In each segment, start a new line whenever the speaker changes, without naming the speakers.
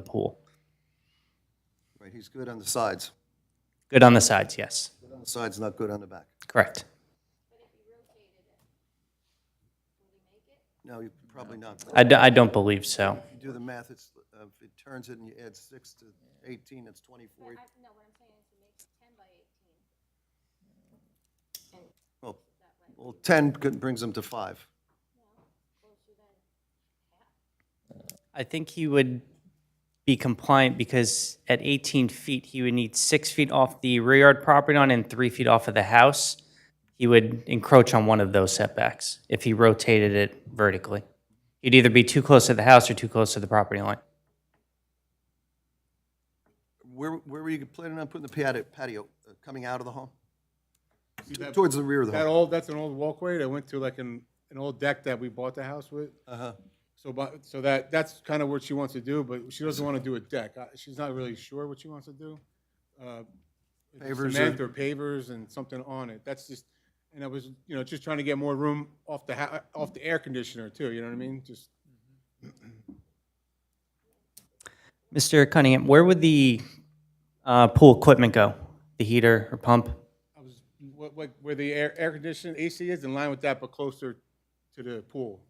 the pool.
Right, he's good on the sides.
Good on the sides, yes.
Good on the sides, not good on the back.
Correct.
No, you probably not.
I, d- I don't believe so.
If you do the math, it's, uh, if it turns it and you add six to 18, it's 24.
No, what I'm saying is to make it ten by eighteen.
Well, well, 10 could- brings them to five.
I think he would be compliant because at 18 feet, he would need six feet off the rear yard property line and three feet off of the house. He would encroach on one of those setbacks if he rotated it vertically. He'd either be too close to the house or too close to the property line.
Where, where were you planning on putting the patio, patio, uh, coming out of the home? Towards the rear of the
That
home?
old, that's an old walkway that went to like an, an old deck that we bought the house with.
Uh-huh.
So, but, so that, that's kind of what she wants to do, but she doesn't want to do a deck. Uh, She's not really sure what she wants to do. Uh, if it's
Pavers or-
Cement or pavers and something on it. That's just, and I was, you know, just trying to get more room off the, ha- off the air conditioner too, you know what I mean? Just,
Mr. Cunningham, where would the uh, pool equipment go? The heater or pump?
I was, what, what, where the air, air conditioning AC is in line with that, but closer to the pool.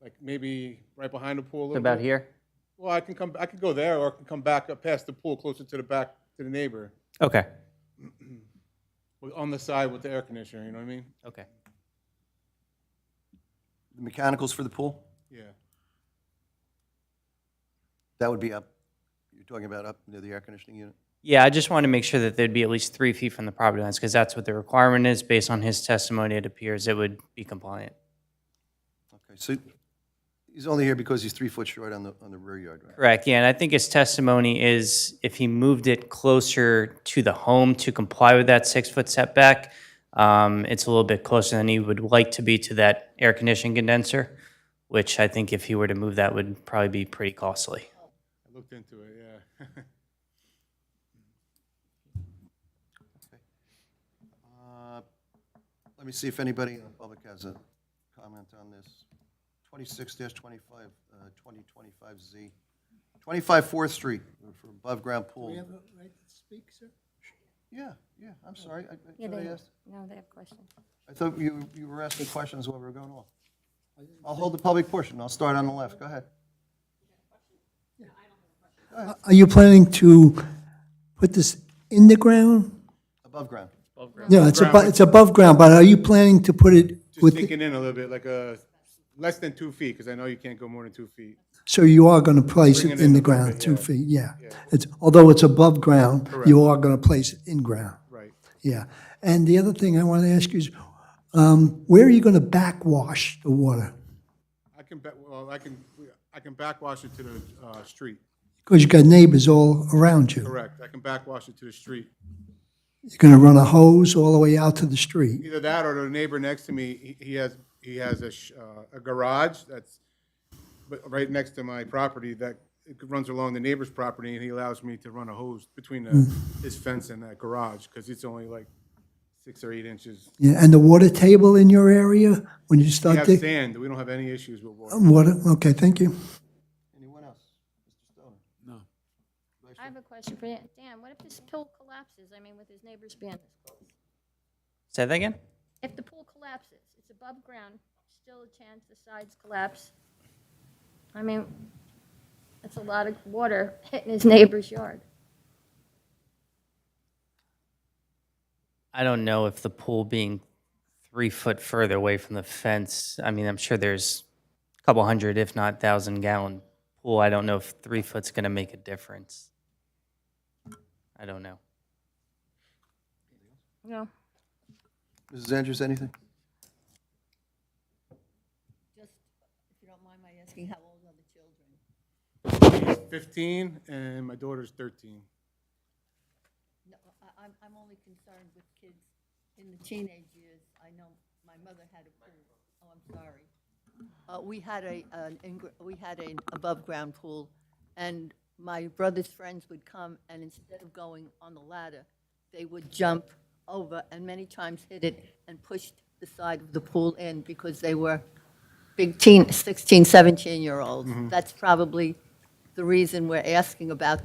Like maybe right behind the pool a little
About
bit.
here?
Well, I can come, I could go there, or I can come back up past the pool, closer to the back, to the neighbor,
Okay,
with- on the side with the air conditioner, you know what I mean?
okay.
The mechanicals for the pool?
Yeah.
That would be up, you're talking about up near the air conditioning unit?
Yeah, I just want to make sure that there'd be at least three feet from the property lines, because that's what the requirement is. Based on his testimony, it appears it would be compliant.
Okay, so he's only here because he's three foot short on the, on the rear yard, right?
Correct, yeah, and I think his testimony is if he moved it closer to the home to comply with that six-foot setback, um, it's a little bit closer than he would like to be to that air conditioning condenser, which I think if he were to move that would probably be pretty costly.
I looked into it, yeah.
Uh, Let me see if anybody in the public has a comment on this. 26-25, uh, 2025Z, 25 Fourth Street uh, for above-ground pool. Yeah, yeah, I'm sorry. I- I- somebody asked-
No, they have questions.
I thought you, you were asking questions while we were going off. I'll hold the public portion. I'll start on the left. Go ahead.
Are you planning to put this in the ground?
Above ground.
No, it's above, it's above ground, but are you planning to put it
Just
with,
sneaking in a little bit, like a, less than two feet, because I know you can't go more than two feet.
so you are going to place
Bring
it
it
in
in
the
a little
ground,
bit,
two
yeah.
feet, yeah. It's, although it's above ground, you are going to place it in ground,
Right.
yeah. And the other thing I want to ask you is, um, where are you going to backwash the water?
I can, ba- well, I can, I can backwash it to the, uh, street,
Because you've got neighbors all around you.
correct. I can backwash it to the street.
You're going to run a hose all the way out to the street.
Either that or the neighbor next to me, he, he has, he has a, sh- uh, a garage that's but right next to my property that runs along the neighbor's property and he allows me to run a hose between the, his fence and that garage, because it's only like six or eight inches.
Yeah, and the water table in your area, when you
We
start
have
digging?
sand, we don't have any issues with water.
Water, Um, okay, thank you.
Anyone else? Mr. Stoner?
I have a question for Dan. Dan, what if this pool collapses? I mean, with his neighbors being this close.
Say that again?
If the pool collapses, it's above ground, still a chance the sides collapse. I mean, that's a lot of water hitting his neighbor's yard.
I don't know if the pool being three foot further away from the fence, I mean, I'm sure there's a couple hundred, if not thousand gallon pool. I don't know if three foot's going to make a difference. I don't know.
No.
Mrs. Andrews, anything?
Just, if you don't mind my asking, how old are the children?
He's Fifteen and my daughter's thirteen.
No, I, I'm, I'm only concerned with kids in the teenage years. I know my mother had a pool. Oh, I'm sorry. Uh, we had a, an, ingr- we had an above-ground pool, and my brother's friends would come, and instead of going on the ladder, they would jump over and many times hit it and pushed the side of the pool in because they were big teen, 16, 17-year-olds. That's probably the reason we're asking about